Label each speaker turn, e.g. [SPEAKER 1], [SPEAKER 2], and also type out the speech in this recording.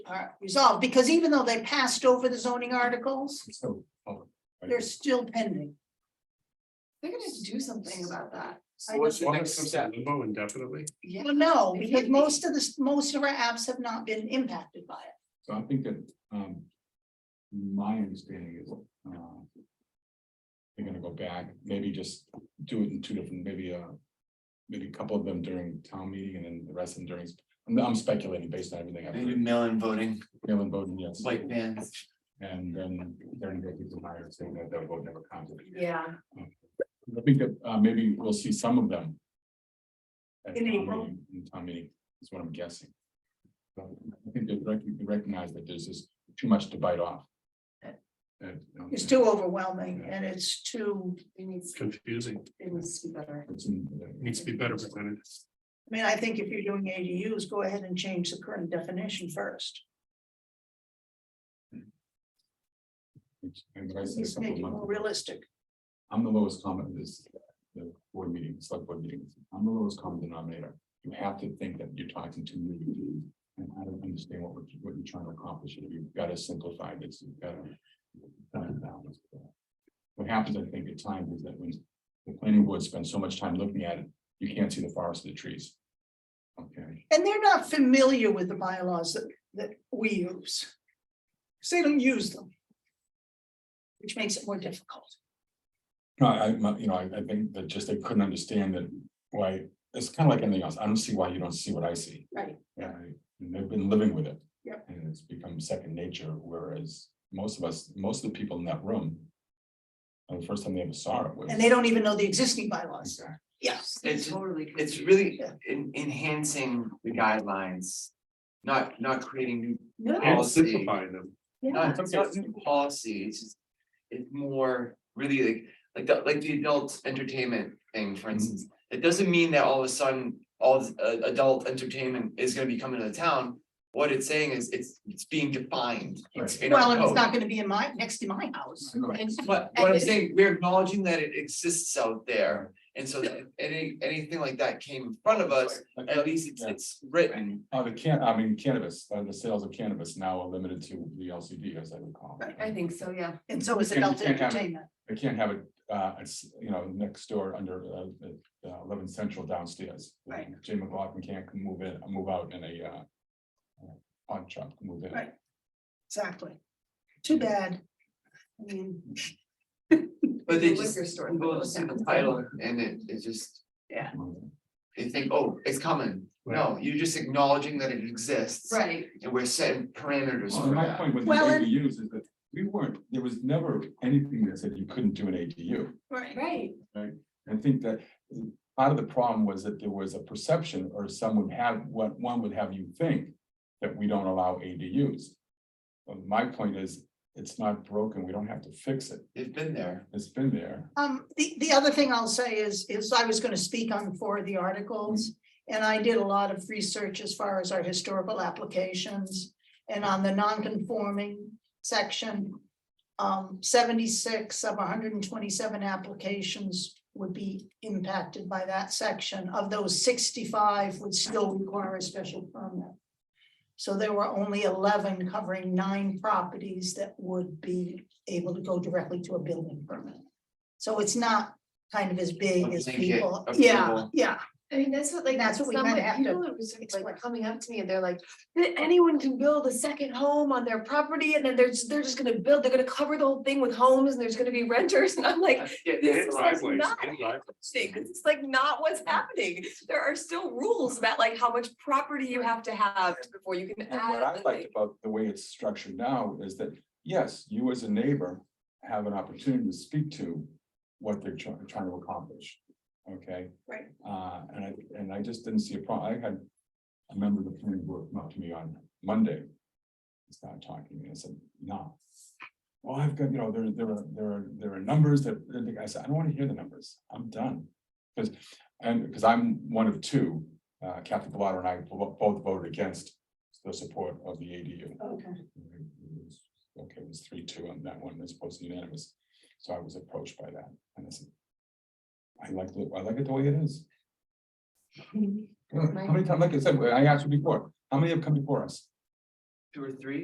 [SPEAKER 1] are resolved, because even though they passed over the zoning articles,
[SPEAKER 2] So, public, right?
[SPEAKER 1] they're still pending.
[SPEAKER 3] They're gonna have to do something about that.
[SPEAKER 1] I
[SPEAKER 4] What's the
[SPEAKER 2] Well,
[SPEAKER 4] next
[SPEAKER 2] it's just
[SPEAKER 4] step?
[SPEAKER 2] Limbo indefinitely,
[SPEAKER 3] Yeah.
[SPEAKER 1] Well, no,
[SPEAKER 3] They
[SPEAKER 1] because
[SPEAKER 3] can't be.
[SPEAKER 1] most of the, most of our apps have not been impacted by it.
[SPEAKER 2] so I think that, um. My understanding is, uh. They're gonna go back, maybe just do it in two different, maybe, uh. Maybe a couple of them during town meeting and then the rest of them during, I'm, I'm speculating based on everything I've
[SPEAKER 4] Maybe
[SPEAKER 2] heard,
[SPEAKER 4] mail-in voting,
[SPEAKER 2] Mail-in voting, yes.
[SPEAKER 4] like bands.
[SPEAKER 2] And then they're gonna go through the higher saying that their vote never counted.
[SPEAKER 3] Yeah,
[SPEAKER 2] I think that, uh, maybe we'll see some of them. at
[SPEAKER 1] In
[SPEAKER 2] town
[SPEAKER 1] April?
[SPEAKER 2] meeting- In town meeting, is what I'm guessing. So I think they rec- they recognize that there's just too much to bite off. um, And, you know,
[SPEAKER 1] It's too overwhelming and it's too,
[SPEAKER 3] it needs,
[SPEAKER 5] confusing,
[SPEAKER 3] it needs to be better.
[SPEAKER 2] it's in-
[SPEAKER 5] needs to be better presented.
[SPEAKER 1] I mean, I think if you're doing ADUs, go ahead and change the current definition first.
[SPEAKER 2] it's- and what I said a
[SPEAKER 1] Just
[SPEAKER 2] couple
[SPEAKER 1] make
[SPEAKER 2] of
[SPEAKER 1] it more
[SPEAKER 2] months ago,
[SPEAKER 1] realistic.
[SPEAKER 2] I'm the lowest common in this, the board meeting, select board meeting, I'm the lowest common denominator. You have to think that you're talking to me. And I don't understand what we're, what you're trying to accomplish, here. you've got to simplify this, you've got to. What happens, I think, at times is that when the planning board spends so much time looking at it, you can't see the forest of the trees. Okay,
[SPEAKER 1] And they're not familiar with the bylaws that, that we use. So they don't use them. Which makes it more difficult.
[SPEAKER 2] no, I, I- you know, I, I think that just they couldn't understand that why, it's kind of like anything else, I don't see why you don't see what I see.
[SPEAKER 1] Right.
[SPEAKER 2] Yeah, and they've been living with it.
[SPEAKER 1] Yep.
[SPEAKER 2] And it's become second nature, whereas most of us, most of the people in that room. uh, The first time they ever saw it was.
[SPEAKER 1] And they don't even know the existing bylaws.
[SPEAKER 2] Exactly.
[SPEAKER 1] Yes.
[SPEAKER 4] It's,
[SPEAKER 3] Totally.
[SPEAKER 4] it's really
[SPEAKER 1] Yeah.
[SPEAKER 4] en- enhancing the guidelines, not, not creating new,
[SPEAKER 3] No,
[SPEAKER 5] And
[SPEAKER 4] Policy.
[SPEAKER 5] simplifying them.
[SPEAKER 4] not, it's not new policy, it's just. It's more really like, like the, like the adult entertainment thing,
[SPEAKER 5] Mm-hmm.
[SPEAKER 4] for instance. It doesn't mean that all of a sudden, all this, uh, adult entertainment is gonna be coming to the town. What it's saying is it's, it's being defined, it's in our
[SPEAKER 1] Well, and it's
[SPEAKER 2] oh.
[SPEAKER 4] code.
[SPEAKER 1] not gonna be in my, next to my house.
[SPEAKER 4] But what I'm saying, we're acknowledging that it exists out there, and so that if any, anything like that came in front of us, at least it's, it's written.
[SPEAKER 2] Oh, the can, I mean cannabis, uh, the sales of cannabis now are limited to the LCD, as I recall.
[SPEAKER 3] I think so, yeah.
[SPEAKER 1] And so is
[SPEAKER 2] And you
[SPEAKER 1] adult
[SPEAKER 2] can't have it.
[SPEAKER 1] entertainment.
[SPEAKER 2] They can't have it, uh, it's, you know, next door under uh, uh, eleven central downstairs.
[SPEAKER 1] Right.
[SPEAKER 2] Jim McLaughlin can't move in, move out in a uh. uh, Pawn shop, can move in.
[SPEAKER 1] Right. Exactly. Too bad. I mean,
[SPEAKER 4] But they
[SPEAKER 3] The
[SPEAKER 4] just,
[SPEAKER 3] liquor store,
[SPEAKER 4] people
[SPEAKER 3] the
[SPEAKER 4] just see the
[SPEAKER 3] liquor
[SPEAKER 4] title and it, it just, they think, oh, it's coming. No, you're just acknowledging that it exists.
[SPEAKER 3] Right,
[SPEAKER 4] And we're setting parameters
[SPEAKER 2] Well,
[SPEAKER 4] for
[SPEAKER 2] my
[SPEAKER 4] that.
[SPEAKER 2] point with the
[SPEAKER 1] Well, and-
[SPEAKER 2] ADUs is that we weren't, there was never anything that said you couldn't do an ADU.
[SPEAKER 1] right.
[SPEAKER 3] right.
[SPEAKER 2] I think that part of the problem was that there was a perception or some would have, what one would have you think that we don't allow ADUs. But my point is, it's not broken. We don't have to fix it.
[SPEAKER 4] They've been there.
[SPEAKER 2] It's been there.
[SPEAKER 1] Um, the, the other thing I'll say is, is I was gonna speak on four of the articles. And I did a lot of research as far as our historical applications and on the non-conforming section. Um, seventy-six of hundred and twenty-seven applications would be impacted by that section. Of those, sixty-five would still require a special permit. So there were only eleven covering nine properties that would be able to go directly to a building permit. So it's not kind of as big as
[SPEAKER 4] Blanket
[SPEAKER 1] people, yeah,
[SPEAKER 4] approval.
[SPEAKER 1] yeah.
[SPEAKER 3] I mean, that's what like,
[SPEAKER 1] That's
[SPEAKER 3] that's
[SPEAKER 1] what
[SPEAKER 3] what
[SPEAKER 1] we kinda have to
[SPEAKER 3] people are just,
[SPEAKER 1] explain.
[SPEAKER 3] like coming up to me and they're like, "Th- anyone can build a second home on their property and then they're just, they're just gonna build, they're gonna cover the whole thing with homes and there's gonna be renters and I'm like. This is like not interesting, 'cause it's like not what's happening. There are still rules about like how much property you have to have before you can
[SPEAKER 2] And what I
[SPEAKER 3] add.
[SPEAKER 2] liked
[SPEAKER 3] like-
[SPEAKER 2] about the way it's structured now is that, yes, you as a neighbor have an opportunity to speak to what they're trying, trying to accomplish. Okay?
[SPEAKER 1] Right.
[SPEAKER 2] Uh, and I, and I just didn't see a problem. I had a member of the planning board come up to me on Monday. He started talking to me. I said, no. Well, I've got, you know, there, there are, there are, there are numbers that, and I said, I don't want to hear the numbers. I'm done. Because, and, because I'm one of two, uh, Kathy Bellata and I bo- both voted against the support of the ADU.
[SPEAKER 1] Okay.
[SPEAKER 2] Okay, it was three, two on that one, it's supposed to be unanimous, so I was approached by that, and I said. I like, it. I like it the way it is. How many times, like I said, I asked you before, how many have come before us?
[SPEAKER 4] two or three.